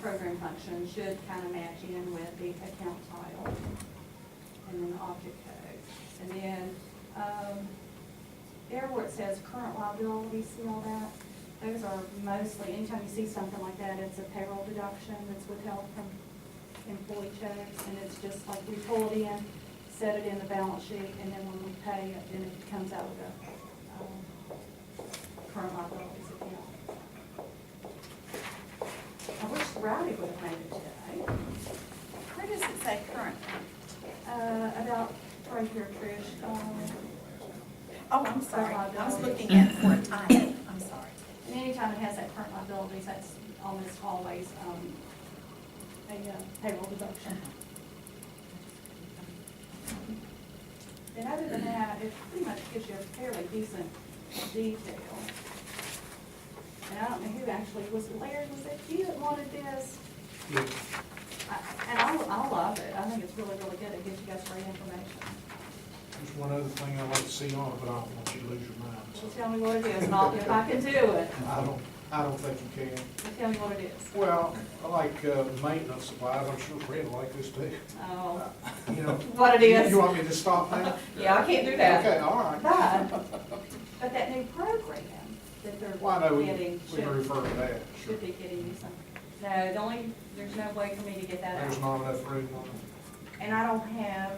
program function should kind of match in with the account title and then the object code. And then, um, there where it says current liability, see all that? Those are mostly, anytime you see something like that, it's a payroll deduction that's withheld from employee checks, and it's just like we pull it in, set it in the balance sheet, and then when we pay it, then it comes out of the, um, current liabilities account. I wish Rowdy would have made it today. Where does it say current? Uh, about, right here, Trish, um, Oh, I'm sorry, I was looking at for a time, I'm sorry. And anytime it has that current liabilities, that's almost always, um, a uh, payroll deduction. And other than that, it pretty much gives you a fairly decent detail. And I don't know who actually, was it Larry, was it you that wanted this? I- And I, I love it, I think it's really, really good, it gives you guys great information. There's one other thing I'd like to see on it, but I don't want you to lose your mind, So so tell me what it is, and I'll, if I can do it, I don't, I don't think you can. so tell me what it is. Well, I like uh, maintenance supplies, I'm sure Fred will like this too. Oh, You know, what it is. you want me to stop now? Yeah, I can't do that. Okay, all right. But, but that new program that they're Well, I know, we getting we can should, refer to that, sure. should be getting you some. No, the only, there's no way for me to get that There's out. not enough room on it. And I don't have,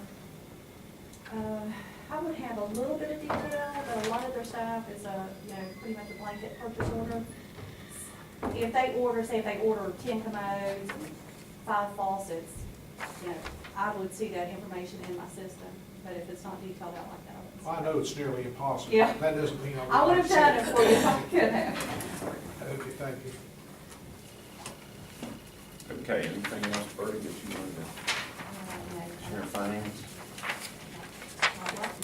uh, I would have a little bit of detail, but a lot of their stuff is a, you know, pretty much a blanket purchase order. If they order, say if they order ten commodes, five faucets, you know, I would see that information in my system. But if it's not detailed out like that, I wouldn't see Well, I know it's nearly impossible. Yeah. That doesn't mean I I would wouldn't have done it for you if I could have. Okay, thank you. Okay, anything else, Bertie, that you wanted to share finance?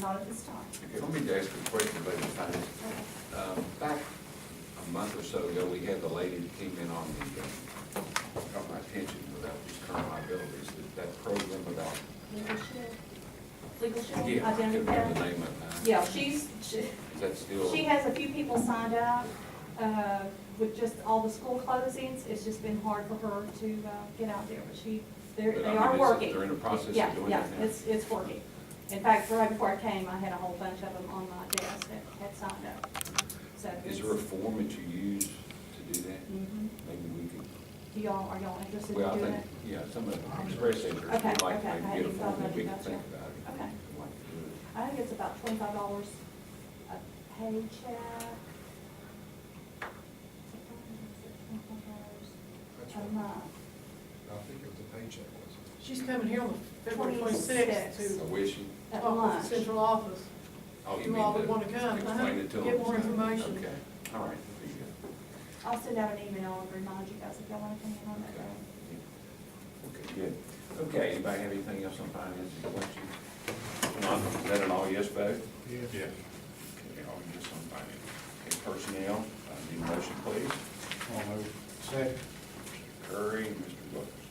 Not at this time. Okay, let me ask you a question about the finance. Um, Back a month or so ago, we had the lady that came in on the, uh, caught my attention without these current liabilities, that- that program about, Legal shield? Legal shield, yeah, I can't identity theft? remember the name of it. now. Yeah, she's, she, Is that still? she has a few people signed up, uh, with just all the school closings. It's just been hard for her to, uh, get out there, but she, they're, But I they mean, are it's- working. They're in the process of Yeah, doing yeah, that now? it's, it's working. In fact, right before I came, I had a whole bunch of them on my desk that had signed up, so. Is there a form that you use to do that? hmm Maybe we could, Do y'all, are y'all interested well, I in doing think, it? yeah, some of the express entries, Okay, we'd like okay, to I maybe get a hadn't form thought that we can about think that. about. it. Okay. We'd like to do it. I think it's about twenty-five dollars a paycheck. That's A right. month. I think it was a paycheck, wasn't it? She's coming here on February 26th. twenty-sixth to I wish you. At talk to lunch. the central office. Oh, you You mean all would to wanna come, uh-huh, Explain it to them. get more information. Okay, all right, there you go. I'll send out an email and remind you guys if y'all want to come in on that Okay. day. yeah. Okay, good. Okay, anybody have anything else on finance or questions? If Not, is that an all yes vote? Yeah. Okay, all yes on finance. Okay, personnel, I need a motion, please. I'll move. Second. Mr. Curry and Mr. Wilkerson.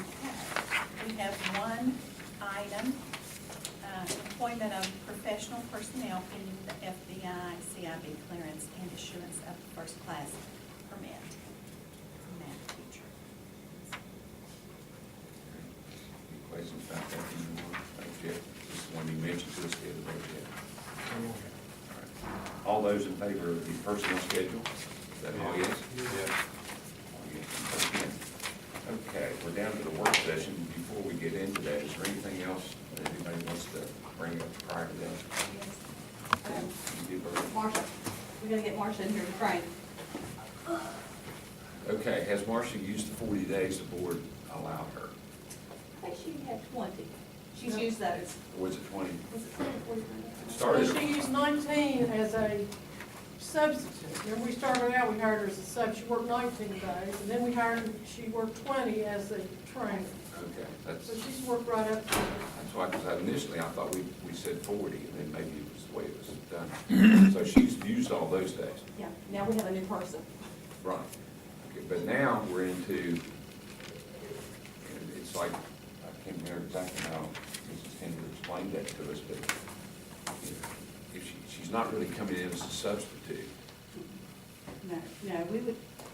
Okay. We have one item, uh, employment of professional personnel pending the FBI, CIB clearance and issuance of first class permit. Math teacher. Any questions about that anymore? Thank you. This is one you mentioned to us the other day, Jeff. All right. All those in favor of the personnel schedule? Is that all yes? Yeah. Okay, we're down to the work session. Before we get into that, is there anything else that anybody wants to bring up prior to that? Um, You did very- Marcia, we're gonna get Marcia in here to train. Okay, has Marcia used the forty days the board allowed her? I think she had twenty. She's Yeah. used those. Or was it twenty? Was it twenty, forty-nine? It Well, started- she used nineteen as a substitute. Remember, we started out, we hired her as a sub, she worked nineteen days, and then we hired, she worked twenty as a trainer. Okay, that's, So she's worked right up to that's why, because initially I thought we, we said forty, and then maybe it was the way it was done. So she's used all those days. Yeah, now we have a new person. Right. Okay, but now we're into, it's like, I can't remember exactly how Mrs. Henry explained that to us, but you know, if she, she's not really coming in as a substitute. No, no, we would,